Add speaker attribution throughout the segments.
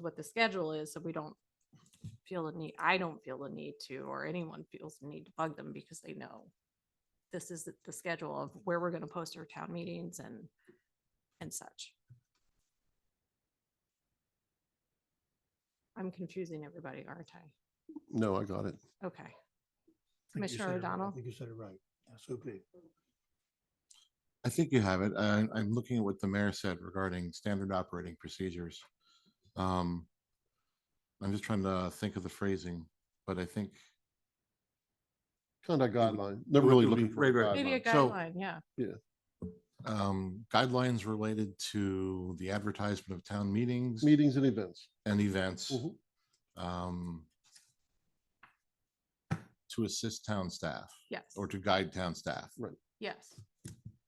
Speaker 1: what the schedule is, so we don't feel the need, I don't feel the need to, or anyone feels the need to bug them because they know this is the- the schedule of where we're gonna post our town meetings and, and such. I'm confusing everybody, aren't I?
Speaker 2: No, I got it.
Speaker 1: Okay.
Speaker 3: I think you
Speaker 1: Commissioner
Speaker 3: said it-
Speaker 1: O'Donnell?
Speaker 3: I think you said it right. SOP.
Speaker 4: I think you have it. I, I'm looking at what the mayor said regarding standard operating procedures. Um, I'm just trying to think of the phrasing, but I think
Speaker 2: Conduct
Speaker 4: It would-
Speaker 2: guideline.
Speaker 4: it
Speaker 2: Never
Speaker 4: would-
Speaker 2: really
Speaker 4: it would be-
Speaker 2: looking for a
Speaker 4: right, right.
Speaker 1: Maybe a
Speaker 4: Guideline. So-
Speaker 1: guideline, yeah.
Speaker 4: um, guidelines related to the advertisement of town meetings
Speaker 2: Meetings and events.
Speaker 4: and events
Speaker 2: Mhm.
Speaker 4: um, to assist town staff
Speaker 1: Yes,
Speaker 4: or to guide town staff.
Speaker 1: yes,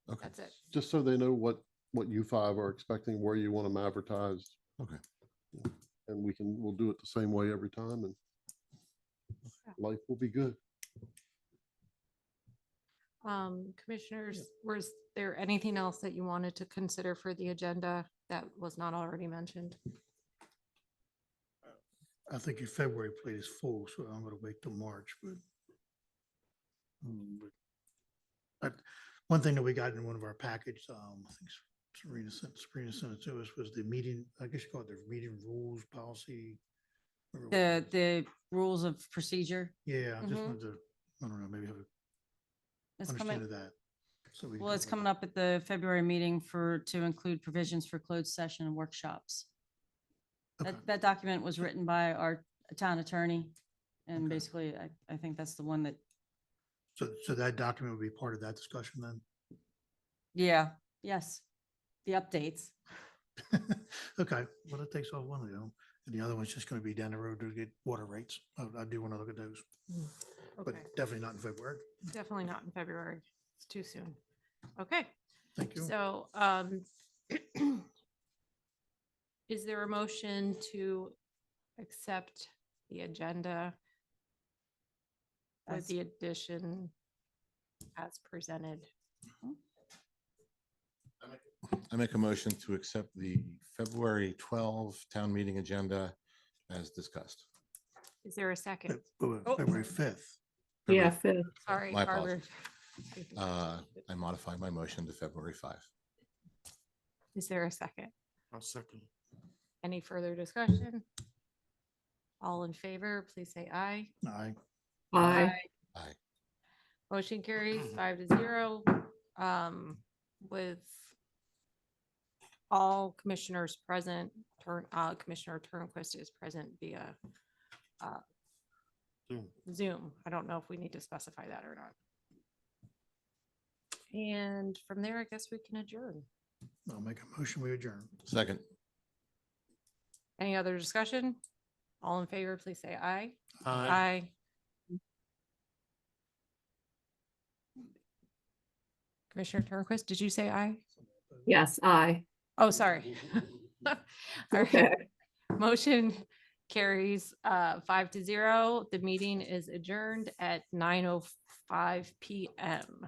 Speaker 4: Okay.
Speaker 1: that's it.
Speaker 2: Just so they know what, what you five are expecting, where you want them advertised.
Speaker 4: Okay.
Speaker 2: Yeah. And we can, we'll do it the same way every time and
Speaker 1: Yeah.
Speaker 2: life will be good.
Speaker 1: Um, commissioners, was there anything else that you wanted to consider for the agenda that was not already mentioned?
Speaker 3: I think your February plate is full, so I'm gonna wait till March, but. Mm, but- But one thing that we got in one of our package, um, I think Serena sent, Serena sent it to us was the meeting, I guess you call it the meeting rules policy. or what
Speaker 5: The,
Speaker 3: it is.
Speaker 5: the rules of procedure
Speaker 3: Yeah, I just
Speaker 1: Mhm.
Speaker 3: wanted to, I don't know, maybe have a
Speaker 5: that's
Speaker 3: understanding
Speaker 5: coming,
Speaker 3: of that. so we can
Speaker 5: well,
Speaker 3: talk
Speaker 5: it's
Speaker 3: about
Speaker 5: coming
Speaker 3: that.
Speaker 5: up at the February meeting for, to include provisions for closed session and workshops. That,
Speaker 3: Okay.
Speaker 5: that document was written by our town attorney. And
Speaker 3: Okay.
Speaker 5: basically, I, I think that's the one that,
Speaker 3: So, so that document would be part of that discussion then?
Speaker 5: yeah, yes, the updates.
Speaker 3: Okay, well, that takes off one of them, and the other one's just gonna be down the road to get water rates. I, I do wanna look at those, but
Speaker 1: Okay,
Speaker 3: definitely not in February.
Speaker 1: definitely not in February. It's too soon. Okay,
Speaker 3: Thank you. Uh,
Speaker 1: so, um, is there a motion to accept the agenda with
Speaker 5: As-
Speaker 1: the addition as presented?
Speaker 4: I make a motion to accept the February 12 town meeting agenda as discussed.
Speaker 1: Is there a
Speaker 3: Fe-
Speaker 1: second?
Speaker 3: Fe-
Speaker 1: Oh.
Speaker 3: February fifth.
Speaker 4: February
Speaker 1: Sorry,
Speaker 4: My
Speaker 1: Carter.
Speaker 4: Uh, I modify my motion to February 5.
Speaker 1: Is there a second?
Speaker 6: I'll second.
Speaker 1: Any further discussion? All in favor, please say aye.
Speaker 3: Aye.
Speaker 7: Aye.
Speaker 4: Aye.
Speaker 1: Motion carries five to zero, um, with all commissioners present, Turn, uh, Commissioner Turnquist is present via, uh,
Speaker 6: Zoom.
Speaker 1: Zoom. I don't know if we need to specify that or not. And from there, I guess we can adjourn.
Speaker 3: I'll make a motion, we adjourn.
Speaker 4: Second.
Speaker 1: Any other discussion? All in favor, please say aye. Aye. Commissioner Turnquist, did you say aye?
Speaker 7: Yes, aye.
Speaker 1: Oh, sorry. All right.
Speaker 7: Okay.
Speaker 1: Motion carries uh five to zero. The meeting is adjourned at nine oh five PM.